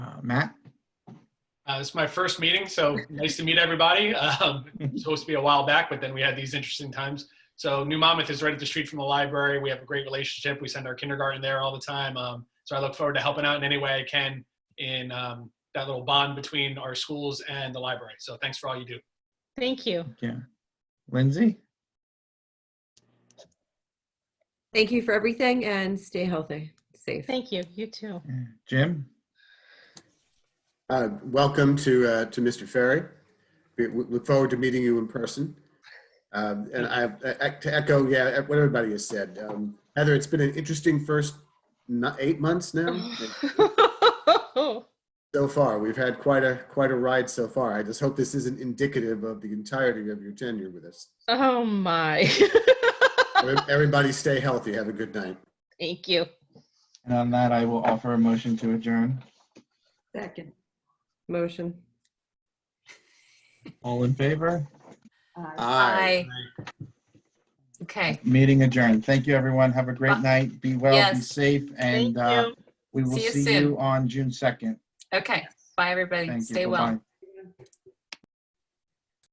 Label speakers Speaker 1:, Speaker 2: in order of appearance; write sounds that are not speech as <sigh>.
Speaker 1: Matt?
Speaker 2: Uh, it's my first meeting, so nice to meet everybody. <laughs> Um, it was supposed to be a while back, but then we had these interesting times. So New Monmouth is right at the street from the library. We have a great relationship. We send our kindergarten there all the time. Um, so I look forward to helping out in any way I can in um, that little bond between our schools and the library. So thanks for all you do.
Speaker 3: Thank you.
Speaker 1: Yeah. Lindsay?
Speaker 4: Thank you for everything and stay healthy, safe.
Speaker 3: Thank you. You too.
Speaker 1: Yeah. Jim?
Speaker 5: Uh, Welcome to, uh, to Mr. Ferry. We we look forward to meeting you in person. Um, And I, I- to echo, yeah, e, what everybody has said, um, Heather, it's been an interesting first ni- eight
Speaker 3: <laughs>
Speaker 5: months now. So far, we've had quite a, quite a ride so far. I just hope this isn't indicative of the entirety of your tenure with us.
Speaker 3: oh my. <laughs>
Speaker 5: Every- Everybody stay healthy. Have a good night.
Speaker 3: Thank you.
Speaker 1: And on that, I will offer a motion to adjourn.
Speaker 4: Second. Motion.
Speaker 1: All in favor?
Speaker 5: Aye.
Speaker 6: Okay.
Speaker 1: Meeting adjourned. Thank you, everyone. Have a great
Speaker 6: Uh,
Speaker 1: night. Be well, be
Speaker 6: yes.
Speaker 1: safe,
Speaker 3: Thank
Speaker 1: and uh,
Speaker 3: you.
Speaker 1: we will
Speaker 6: See you
Speaker 1: see
Speaker 6: soon.
Speaker 1: you on June 2nd.
Speaker 6: Okay. Bye, everybody.
Speaker 1: Thank you.
Speaker 6: Stay well.
Speaker 1: Bye-bye.